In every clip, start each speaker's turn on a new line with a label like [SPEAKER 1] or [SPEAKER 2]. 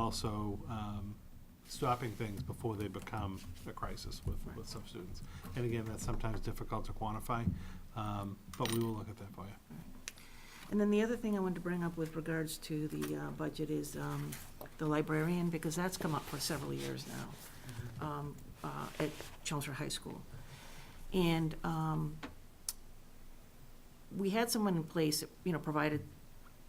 [SPEAKER 1] also um, stopping things before they become a crisis with, with some students. And again, that's sometimes difficult to quantify, um, but we will look at that for you.
[SPEAKER 2] And then the other thing I wanted to bring up with regards to the uh, budget is um, the librarian, because that's come up for several years now um, uh, at Chelmsford High School. And um, we had someone in place, that, you know, provided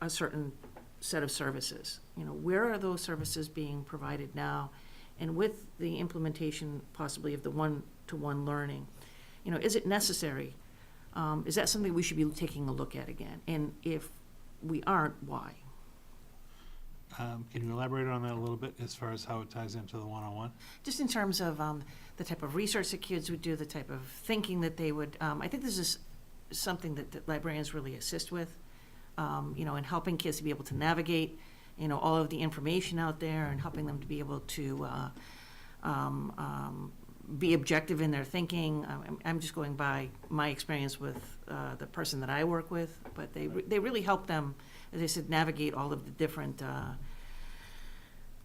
[SPEAKER 2] a certain set of services. You know, where are those services being provided now? And with the implementation possibly of the one-to-one learning, you know, is it necessary um, is that something we should be taking a look at again? And if we aren't, why?
[SPEAKER 1] Um, Can you elaborate on that a little bit as far as how it ties into the one-on-one?
[SPEAKER 2] Just in terms of um, the type of research that kids would do, the type of thinking that they would, um, I think this is something that, that librarians really assist with, um, you know, in helping kids to be able to navigate, you know, all of the information out there and helping them to be able to uh, um, um, be objective in their thinking. Um, I'm, I'm just going by my experience with uh, the person that I work with, but they, re- they really help them, as I said, navigate all of the different. Uh,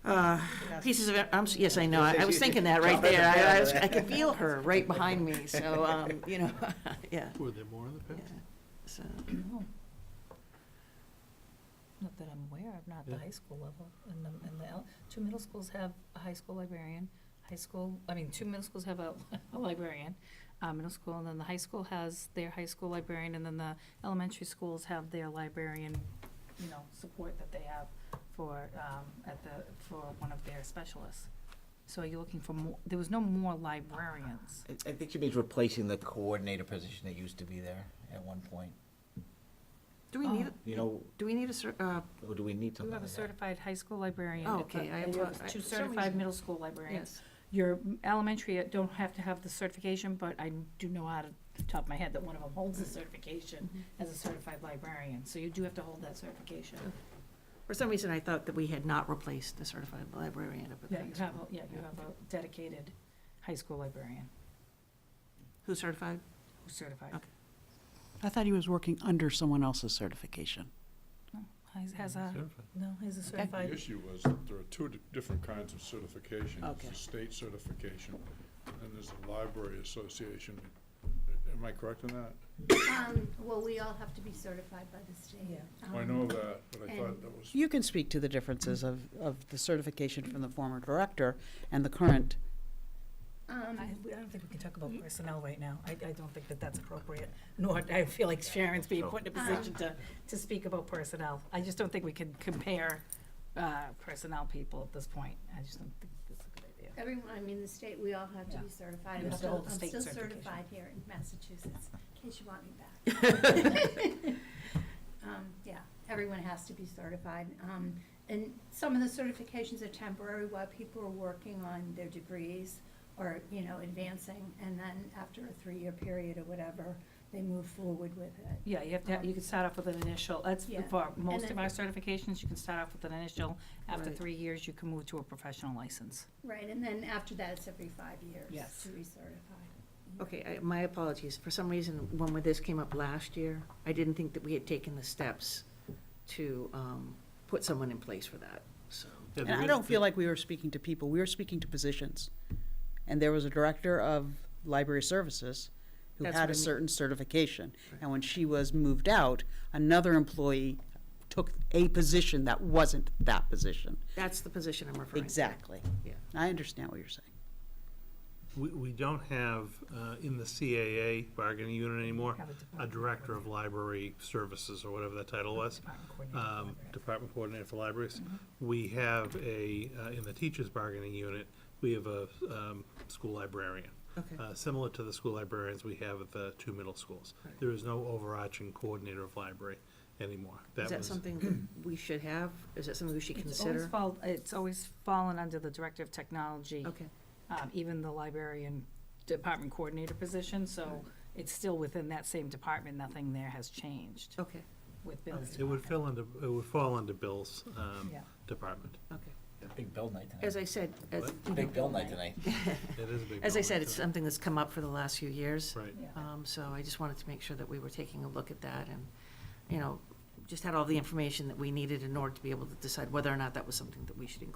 [SPEAKER 2] uh, pieces of it. I'm, s- yes, I know. I, I was thinking that right there. I, I, was, I could feel her right behind me. So, um, you know, yeah.
[SPEAKER 1] Were there more in the
[SPEAKER 2] yeah.
[SPEAKER 1] past?
[SPEAKER 2] So,
[SPEAKER 3] No. Not that I'm aware of, not at the
[SPEAKER 1] Yeah.
[SPEAKER 3] high school level. And the, and the, el- two middle schools have a high school librarian, high school, I mean, two middle schools have a, a librarian, uh, middle school, and then the high school has their high school librarian, and then the elementary schools have their librarian, you know, support that they have for, um, at the, for one of their specialists. So are you looking for more, there was no more librarians.
[SPEAKER 4] I, I think she means replacing the coordinator position that used to be there at one point.
[SPEAKER 2] do we need?
[SPEAKER 3] Oh.
[SPEAKER 4] You know,
[SPEAKER 2] Do we need a cer- uh,
[SPEAKER 4] or do we need
[SPEAKER 3] You
[SPEAKER 4] something
[SPEAKER 3] have a
[SPEAKER 4] like that?
[SPEAKER 3] certified high school librarian.
[SPEAKER 2] Oh,
[SPEAKER 3] at the-
[SPEAKER 2] okay, I
[SPEAKER 3] and you have
[SPEAKER 2] thought- I-
[SPEAKER 3] Two
[SPEAKER 2] for some
[SPEAKER 3] certified
[SPEAKER 2] reason-
[SPEAKER 3] middle school librarians.
[SPEAKER 2] yes?
[SPEAKER 3] Your elementary don't have to have the certification, but I do know out of the top of my head that one of them holds the certification as a certified librarian, so you do have to hold that certification.
[SPEAKER 2] For some reason, I thought that we had not replaced the certified librarian up at the
[SPEAKER 3] Yeah,
[SPEAKER 2] high
[SPEAKER 3] you have,
[SPEAKER 2] school.
[SPEAKER 3] a- yeah, you have a dedicated high school librarian
[SPEAKER 2] Who's certified?
[SPEAKER 3] who's certified.
[SPEAKER 2] Okay.
[SPEAKER 5] I thought he was working under someone else's certification.
[SPEAKER 3] Oh, Has- Has uh, a, no, has a
[SPEAKER 6] The
[SPEAKER 3] certified,
[SPEAKER 6] issue was that there are two di- different kinds of certification.
[SPEAKER 5] Okay.
[SPEAKER 6] There's the state certification, and there's the library association. Am I correct in that?
[SPEAKER 7] Um, well, we all have to be certified by the state.
[SPEAKER 6] I
[SPEAKER 7] Um,
[SPEAKER 6] know that, but I thought
[SPEAKER 7] and-
[SPEAKER 6] that was,
[SPEAKER 5] You can speak to the differences of, of the certification from the former director and the current.
[SPEAKER 7] Um,
[SPEAKER 3] I I don't think we can talk about personnel right now. I, I don't think that that's appropriate, nor I feel like Sharon's being put in a position to, to speak about personnel. I just don't think we can compare uh, personnel people at this point. I just don't think that's a good idea.
[SPEAKER 7] everyone, I mean, the state, we all have to
[SPEAKER 3] Yeah.
[SPEAKER 7] be certified.
[SPEAKER 3] You
[SPEAKER 7] I'm
[SPEAKER 3] have to
[SPEAKER 7] still,
[SPEAKER 3] hold the
[SPEAKER 7] I'm
[SPEAKER 3] state
[SPEAKER 7] still
[SPEAKER 3] certification.
[SPEAKER 7] certified here in Massachusetts, in case you want me back. Um, yeah, everyone has to be certified. Um, and some of the certifications are temporary while people are working on their degrees or, you know, advancing. And then after a three-year period or whatever, they move forward with it.
[SPEAKER 3] Yeah, you have to, you can start off with an initial, that's
[SPEAKER 7] Yeah.
[SPEAKER 3] for most of
[SPEAKER 7] then-
[SPEAKER 3] our certifications, you can start off with an initial. After
[SPEAKER 2] Right.
[SPEAKER 3] three years, you can move to a professional license.
[SPEAKER 7] Right, and then after that, it's every five years
[SPEAKER 3] Yes.
[SPEAKER 7] to recertify.
[SPEAKER 2] Okay, I, my apologies. For some reason, when we- this came up last year, I didn't think that we had taken the steps to um, put someone in place for that. So,
[SPEAKER 1] Yeah,
[SPEAKER 5] And
[SPEAKER 1] there
[SPEAKER 5] I
[SPEAKER 1] is-
[SPEAKER 5] don't feel like we were speaking to people, we were speaking to positions. And there was a director of library services who
[SPEAKER 2] That's
[SPEAKER 5] had
[SPEAKER 2] what I
[SPEAKER 5] a
[SPEAKER 2] mean.
[SPEAKER 5] certain certification. And when she was moved out, another employee took a position that wasn't that position.
[SPEAKER 2] that's the position I'm referring to.
[SPEAKER 5] Exactly.
[SPEAKER 2] Yeah.
[SPEAKER 5] I understand what you're saying.
[SPEAKER 1] We, we don't have uh, in the CAA bargaining unit anymore,
[SPEAKER 3] Have a
[SPEAKER 1] a
[SPEAKER 3] department
[SPEAKER 1] director of library services or whatever that title was.
[SPEAKER 3] Department coordinator.
[SPEAKER 1] um, Department Coordinator for Libraries.
[SPEAKER 2] Mm-hmm.
[SPEAKER 1] We have a, uh, in the teachers bargaining unit, we have a um, school librarian.
[SPEAKER 2] Okay.
[SPEAKER 1] Uh, Similar to the school librarians we have at the two middle schools.
[SPEAKER 2] Right.
[SPEAKER 1] There is no overarching coordinator of library anymore.
[SPEAKER 2] Is that
[SPEAKER 1] was-
[SPEAKER 2] something that we should have? Is that something we should
[SPEAKER 3] It's always
[SPEAKER 2] consider?
[SPEAKER 3] fall, it's always fallen under the Director of Technology.
[SPEAKER 2] Okay,
[SPEAKER 3] um, even the librarian department coordinator position, so it's still within that same department, nothing there has changed
[SPEAKER 2] okay,
[SPEAKER 3] with Bill's
[SPEAKER 1] It would
[SPEAKER 3] department.
[SPEAKER 1] fill under, it would fall under Bill's um,
[SPEAKER 3] Yeah.
[SPEAKER 1] department.
[SPEAKER 2] okay.
[SPEAKER 4] Big bill night
[SPEAKER 2] As
[SPEAKER 4] tonight.
[SPEAKER 2] I said, as,
[SPEAKER 4] Big bill night tonight.
[SPEAKER 1] It is a big.
[SPEAKER 2] as I
[SPEAKER 1] building,
[SPEAKER 2] said, it's
[SPEAKER 1] so-
[SPEAKER 2] something that's come up for the last few years.
[SPEAKER 1] Right.
[SPEAKER 3] Yeah.
[SPEAKER 2] Um, so I just wanted to make sure that we were taking a look at that and, you know, just had all the information that we needed in order to be able to decide whether or not that was something that we should include